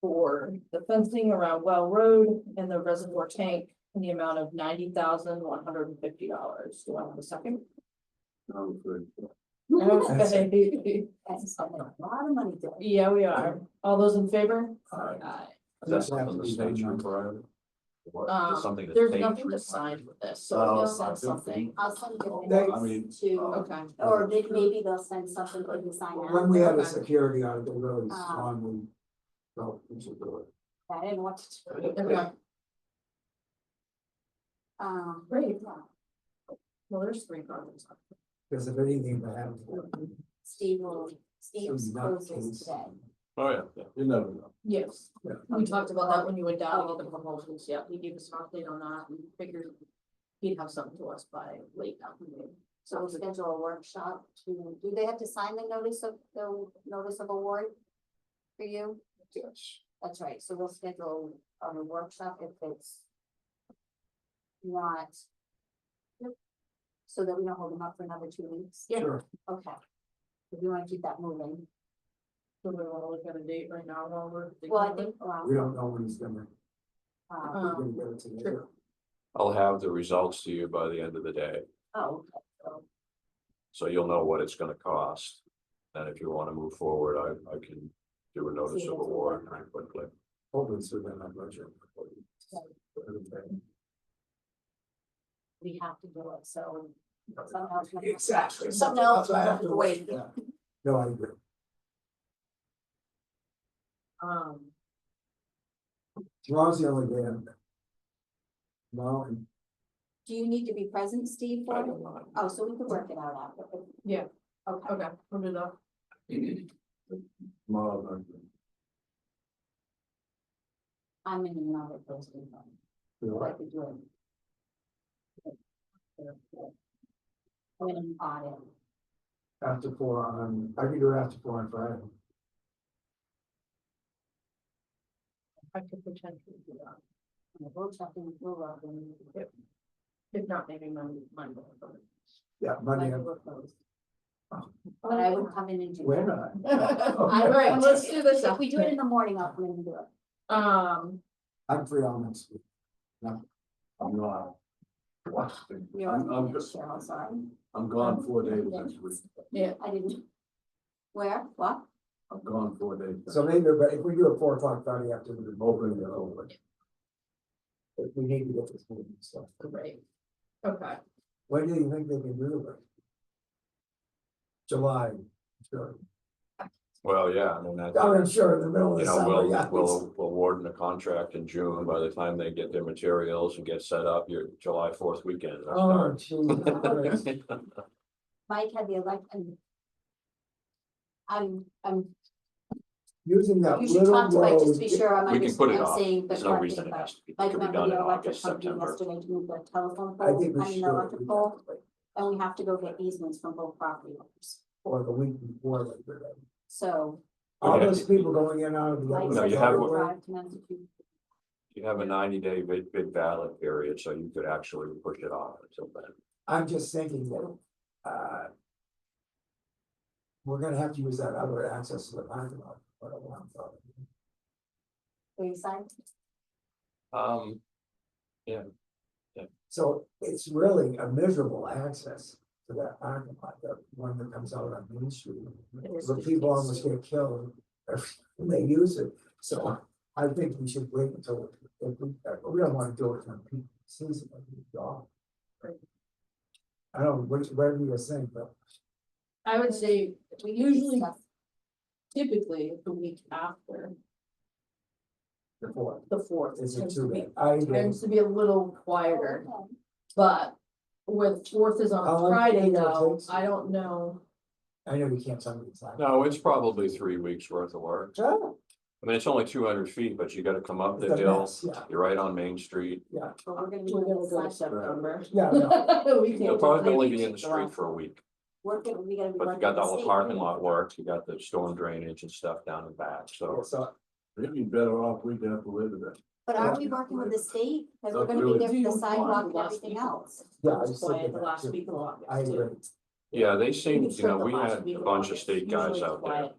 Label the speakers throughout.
Speaker 1: for the fencing around Well Road and the reservoir tank in the amount of ninety thousand one hundred and fifty dollars. Do I have a second?
Speaker 2: Sounds Oh, good.
Speaker 1: Okay.
Speaker 3: That's a lot of money to.
Speaker 1: Yeah, we are. All those in favor?
Speaker 2: Alright.
Speaker 1: Aye.
Speaker 2: Is that something the state required? What,
Speaker 1: Um,
Speaker 2: Is something the
Speaker 1: There's
Speaker 2: state
Speaker 1: nothing
Speaker 2: required?
Speaker 1: to sign with this, so
Speaker 2: Oh,
Speaker 1: they'll send
Speaker 2: okay.
Speaker 1: something.
Speaker 3: I'll send you
Speaker 4: They-
Speaker 2: I mean,
Speaker 3: guys to,
Speaker 1: Okay,
Speaker 3: or they- maybe they'll send something for you to sign out.
Speaker 4: When we had a security on the roads,
Speaker 3: Ah.
Speaker 4: on we. Well, we should do it.
Speaker 3: I didn't want to. do it.
Speaker 1: okay.
Speaker 3: Um.
Speaker 1: Great.
Speaker 3: yeah.
Speaker 1: Well, there's three problems.
Speaker 4: Because if anything that happens.
Speaker 3: Steve will, Steve's
Speaker 4: it's not
Speaker 3: closes
Speaker 4: case.
Speaker 3: today.
Speaker 2: Oh, yeah, yeah, you never know.
Speaker 1: Yes,
Speaker 4: Yeah.
Speaker 1: we talked about that when you went down all the proposals, yeah, he gave us an update on that, we figured he'd have something to us by late afternoon.
Speaker 3: So we'll schedule a workshop to, do they have to sign the notice of, the notice of award? For you?
Speaker 2: Yes.
Speaker 3: That's right, so we'll schedule a workshop if it's. Not. So that we don't hold them up for another two weeks.
Speaker 1: Yeah.
Speaker 4: Sure.
Speaker 3: Okay. If you wanna keep that moving,
Speaker 1: Do we wanna look at a date right now while we're? thinking
Speaker 3: well, I
Speaker 1: about it?
Speaker 3: think, well,
Speaker 4: We don't know when he's gonna,
Speaker 3: uh,
Speaker 4: we're
Speaker 1: Um,
Speaker 4: gonna get it to
Speaker 1: sure.
Speaker 4: you.
Speaker 2: I'll have the results to you by the end of the day,
Speaker 3: oh,
Speaker 2: so you'll know what it's gonna cost. And if you wanna move forward, I, I can do a notice
Speaker 3: See,
Speaker 2: of
Speaker 3: that's what
Speaker 2: award
Speaker 3: we're-
Speaker 2: very quickly.
Speaker 4: Hopefully it's within our budget. Everything.
Speaker 3: we have to do it, so somehow. it's gonna-
Speaker 4: Exactly.
Speaker 3: Something else,
Speaker 4: That's why I have to
Speaker 3: wait.
Speaker 4: Yeah. No, I agree.
Speaker 1: Um,
Speaker 4: Tomorrow's the only day. I'm there. Tomorrow and
Speaker 3: Do you need to be present, Steve,
Speaker 2: I
Speaker 3: for it?
Speaker 2: don't mind.
Speaker 3: Oh, so we could work it out after.
Speaker 1: Yeah.
Speaker 3: Okay.
Speaker 1: okay, we'll do that.
Speaker 2: Tomorrow,
Speaker 3: I'm in another posting room.
Speaker 4: we
Speaker 3: what I
Speaker 4: are.
Speaker 3: could do. I'm gonna audit.
Speaker 4: after four on, I can do it after four on Friday.
Speaker 1: I could potentially do that,
Speaker 3: And We'll check in, we'll, uh, when we-
Speaker 1: if not, maybe my, my.
Speaker 4: Yeah, Monday.
Speaker 3: when we're closed. But I would come in and do
Speaker 4: Wait a
Speaker 3: it.
Speaker 4: minute.
Speaker 3: I would.
Speaker 1: Let's do this
Speaker 3: If we do it in the morning, I'll come in and do it.
Speaker 1: Um,
Speaker 4: I'm free all next week.
Speaker 2: I'm not. Washington.
Speaker 3: You're
Speaker 2: I'm,
Speaker 3: on
Speaker 2: I'm
Speaker 3: the
Speaker 2: just,
Speaker 3: Cheryl, sorry.
Speaker 2: I'm gone four days next week,
Speaker 1: yeah,
Speaker 3: I didn't. Where, what?
Speaker 2: I'm gone four days. next
Speaker 4: So maybe, but if we do a four o'clock Friday after the open, then over. If we need to get this moving, so
Speaker 1: great, okay,
Speaker 4: when do you think they can do it? July, sure.
Speaker 2: Well, yeah, I mean, that.
Speaker 4: I'm sure in the middle of
Speaker 2: You
Speaker 4: the
Speaker 2: know,
Speaker 4: summer, yeah.
Speaker 2: we'll, we'll, we'll warden a contract in June, by the time they get their materials and get set up, your July fourth weekend. they're
Speaker 4: Oh,
Speaker 2: starting.
Speaker 4: geez. Christ.
Speaker 3: Mike had the election. I'm, I'm,
Speaker 4: Using that
Speaker 3: you should talk to
Speaker 4: little
Speaker 3: Mike just to
Speaker 4: road.
Speaker 3: be sure I'm
Speaker 2: We can put it
Speaker 3: understanding, I'm
Speaker 2: off,
Speaker 3: saying the
Speaker 2: there's no
Speaker 3: correct
Speaker 2: reason
Speaker 3: thing,
Speaker 2: it
Speaker 3: but.
Speaker 2: has to be, it
Speaker 3: Like
Speaker 2: could be
Speaker 3: remember
Speaker 2: done in
Speaker 3: the electric
Speaker 2: August,
Speaker 3: company
Speaker 2: September.
Speaker 3: yesterday to move the telephone
Speaker 4: I
Speaker 3: pole,
Speaker 4: think
Speaker 3: I
Speaker 4: we
Speaker 3: mean
Speaker 4: should.
Speaker 3: the electric pole,
Speaker 4: like,
Speaker 3: and we have to go get easements from both property owners.
Speaker 4: Or the week before. like, we're like-
Speaker 3: So.
Speaker 4: All
Speaker 2: Okay.
Speaker 4: those people going in and out of the.
Speaker 3: Mike's "Oh,
Speaker 2: No,
Speaker 4: office
Speaker 2: you have-
Speaker 4: everywhere.
Speaker 3: drive to Massachusetts.
Speaker 2: You have a ninety day bid, bid ballot period, so you could actually push it off until then.
Speaker 4: I'm just thinking that, uh. We're gonna have to use that other access to the parking lot, but I want to.
Speaker 3: Are you signed?
Speaker 2: Um,
Speaker 4: So it's really a miserable access to that parking lot, the one that comes out on Main Street.
Speaker 1: is
Speaker 4: The people almost get killed every time they use it, so I think we should wait until, if we, uh, we don't wanna do it when people sees it, like, it's gone.
Speaker 1: Right.
Speaker 4: I don't, know which, whatever you're saying, but
Speaker 1: I would say, we
Speaker 3: can
Speaker 1: usually
Speaker 3: discuss.
Speaker 1: typically the week after,
Speaker 4: the fourth
Speaker 1: the fourth.
Speaker 4: is it
Speaker 1: tends to
Speaker 4: too
Speaker 1: be-
Speaker 4: late? I agree.
Speaker 1: Tends to be a little quieter.
Speaker 3: Okay.
Speaker 1: But with fourth is
Speaker 4: How
Speaker 1: on
Speaker 4: long
Speaker 1: Friday
Speaker 4: do you think it'll
Speaker 1: though,
Speaker 4: take?
Speaker 1: I don't know.
Speaker 4: I know we can't tell me exactly.
Speaker 2: no, it's probably three weeks worth of work.
Speaker 4: Oh,
Speaker 2: I mean, it's only two hundred feet, but you gotta come up
Speaker 4: it's
Speaker 2: the
Speaker 4: a
Speaker 2: hill,
Speaker 4: mess, Yeah,
Speaker 2: you're right on Main Street.
Speaker 3: But we're gonna be
Speaker 1: We're gonna go
Speaker 3: doing
Speaker 1: to
Speaker 3: this, like,
Speaker 1: September.
Speaker 4: yeah, no,
Speaker 1: We
Speaker 2: You'll
Speaker 1: can't.
Speaker 2: probably only
Speaker 3: maybe
Speaker 2: be in the
Speaker 3: it's July.
Speaker 2: street for a week,
Speaker 3: we're gonna, we gotta be.
Speaker 2: but you
Speaker 3: working
Speaker 2: got the
Speaker 3: with
Speaker 2: whole
Speaker 3: state.
Speaker 2: parking lot work, you got the storm drainage and stuff down the back,
Speaker 1: Oh.
Speaker 2: so.
Speaker 4: so
Speaker 2: You'd be better off week after Labor Day.
Speaker 3: But aren't we working with the state? Cause we're
Speaker 2: Not
Speaker 3: gonna be
Speaker 2: really.
Speaker 3: there
Speaker 1: Do
Speaker 3: for the
Speaker 1: you
Speaker 3: sidewalk
Speaker 1: want
Speaker 3: and
Speaker 1: the last
Speaker 3: everything
Speaker 1: week?
Speaker 3: else.
Speaker 4: Yeah, I
Speaker 1: It was
Speaker 4: just looked
Speaker 1: quiet
Speaker 4: at
Speaker 1: the
Speaker 4: that
Speaker 1: last
Speaker 4: too.
Speaker 1: week of August.
Speaker 4: I
Speaker 1: too.
Speaker 4: agree.
Speaker 2: Yeah, they
Speaker 1: You
Speaker 2: seemed, you know,
Speaker 1: the
Speaker 2: we
Speaker 1: last
Speaker 2: had
Speaker 1: week
Speaker 2: a
Speaker 1: of
Speaker 2: bunch of
Speaker 1: August,
Speaker 2: state guys
Speaker 1: usually
Speaker 2: out there.
Speaker 1: quiet.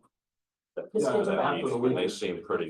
Speaker 2: that-
Speaker 1: Just
Speaker 2: that
Speaker 1: think about it.
Speaker 2: evening, And they seemed pretty